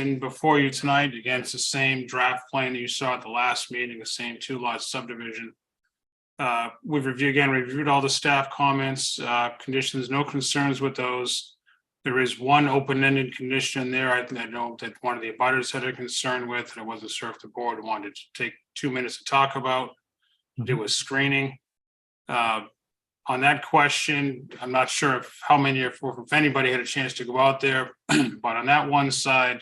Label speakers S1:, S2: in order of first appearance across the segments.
S1: in before you tonight. Again, it's the same draft plan that you saw at the last meeting, the same two lot subdivision. Uh, We've reviewed, again, reviewed all the staff comments, uh, conditions, no concerns with those. There is one open-ended condition there. I think I know that one of the abutters had a concern with, and it wasn't sure if the board wanted to take two minutes to talk about. It was screening. Uh, on that question, I'm not sure if how many, if, if anybody had a chance to go out there, but on that one side,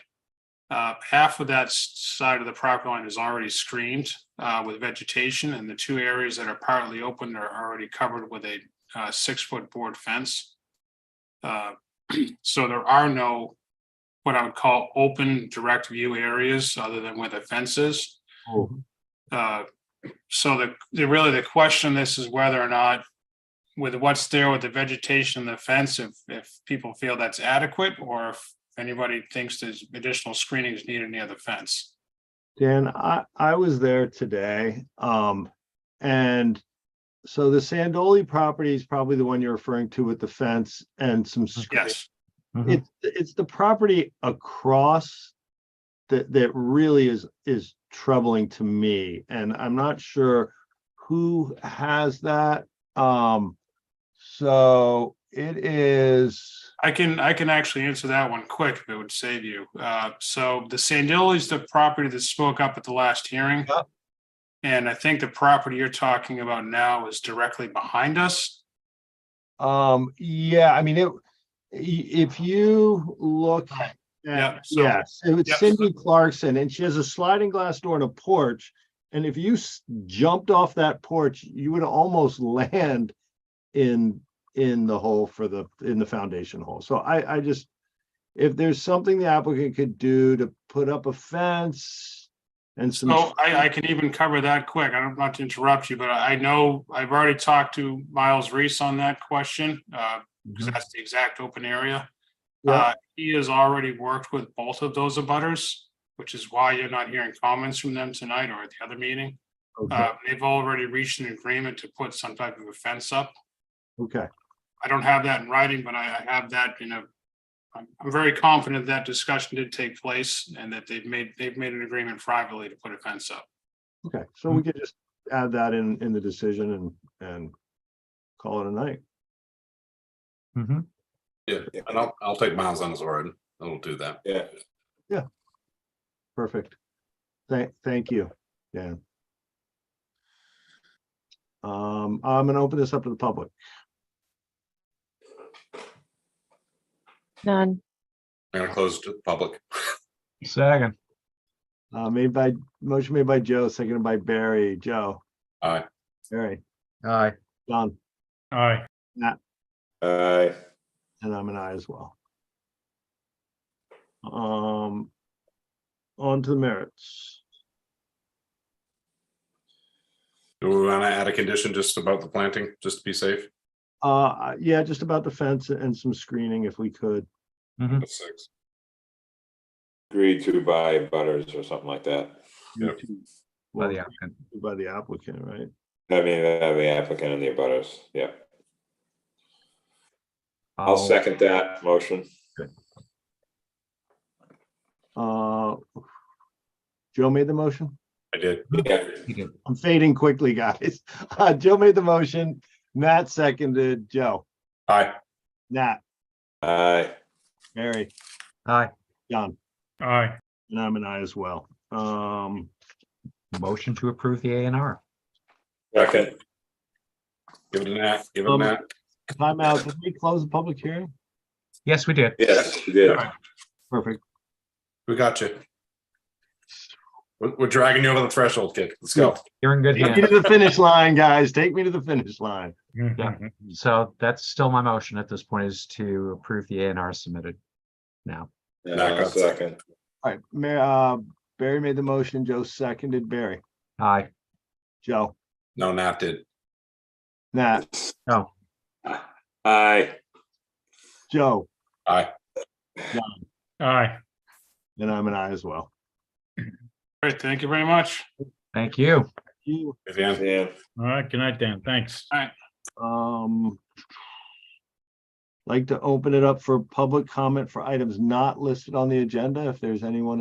S1: uh, half of that s- side of the property line is already screened, uh, with vegetation and the two areas that are partly open are already covered with a, uh, six-foot board fence. Uh, so there are no, what I would call open direct view areas other than where the fence is. Uh, so the, the, really the question this is whether or not with what's there with the vegetation and the fence, if, if people feel that's adequate, or if anybody thinks there's additional screening is needed near the fence.
S2: Dan, I, I was there today, um, and so the Sandoli property is probably the one you're referring to with the fence and some screening.
S1: Yes,
S2: It's, it's the property across that, that really is, is troubling to me, and I'm not sure who has that. Um, so it is,
S1: I can, I can actually answer that one quick if it would save you. Uh, so the Sandilli is the property that spoke up at the last hearing.
S2: Yep.
S1: And I think the property you're talking about now is directly behind us.
S2: um, yeah, I mean, it, i- if you look
S1: Right.
S2: Yeah,
S1: Yeah, so-
S2: yes, it was
S1: Yep.
S2: Cindy Clarkson, and she has a sliding glass door and a porch. And if you s- jumped off that porch, you would almost land in, in the hole for the, in the foundation hole. So I, I just, if there's something the applicant could do to put up a fence and some.
S1: So Oh, I, I can even cover that quick. I don't want to interrupt you, but I know I've already talked to Miles Reese on that question. Uh, because that's the exact open area.
S2: Mm-hmm. Yeah.
S1: Uh, he has already worked with both of those abutters, which is why you're not hearing comments from them tonight or at the other meeting.
S2: Okay,
S1: Uh, they've already reached an agreement to put some type of a fence up.
S2: okay,
S1: I don't have that in writing, but I, I have that in a. I'm, I'm very confident that discussion did take place and that they've made, they've made an agreement privately to put a fence up.
S2: okay. So we could just add that in, in the decision and, and call it a night.
S3: Mm-hmm.
S4: Yeah, and I'll, I'll take Miles on his word. I'll do that.
S5: Yeah,
S2: Perfect. Thank, thank you, Dan. Um, I'm gonna open this up to the public.
S6: None.
S4: I'm gonna close to the public.
S3: Second,
S2: Uh, made by, motion made by Joe, seconded by Barry. Joe,
S4: All
S2: Barry,
S3: aye,
S2: John,
S1: Aye.
S5: aye,
S2: and I'm an I as well. Um, on to the merits.
S4: do we want to add a condition just about the planting, just to be safe?
S2: Uh, yeah, just about the fence and some screening if we could.
S4: That's six.
S5: agreed to by Butters or something like that.
S4: Yeah.
S3: by
S2: Well,
S3: the applicant.
S2: By the applicant, right?
S5: I mean, uh, the applicant and the Butters, yeah. I'll
S3: I'll-
S5: second that motion.
S2: Uh, Joe made the motion?
S4: I did.
S5: Yeah,
S3: He did.
S2: I'm fading quickly, guys. Uh, Joe made the motion, Matt seconded, Joe,
S4: Aye.
S2: Nat,
S5: aye,
S2: Mary,
S3: Aye,
S2: John,
S1: Aye.
S2: and I'm an I as well. Um,
S3: motion to approve the A and R.
S5: second,
S4: Give it a nap, give it a
S2: Um,
S4: nap.
S2: timeout, did we close the public hearing?
S3: Yes, we did.
S5: yes, you did.
S2: Perfect.
S4: We got you. We're, we're dragging you over the threshold, kid. Let's go.
S3: You're in good
S2: Take me
S3: hands.
S2: to the finish line, guys. Take me to the finish line.
S1: Mm-hmm.
S3: So that's still my motion at this point is to approve the A and R submitted now.
S5: And I'll second,
S2: All right, Ma- uh, Barry made the motion, Joe seconded, Barry,
S3: Aye,
S2: Joe,
S4: No, Nat did.
S2: Nat,
S5: aye,
S2: Joe,
S1: Aye.
S2: and I'm an I as well.
S1: All right, thank you very much.
S3: thank you.
S2: You,
S4: Vivian,
S5: Dan,
S7: All right, good night, Dan. Thanks.
S2: um, like to open it up for public comment for items not listed on the agenda. If there's anyone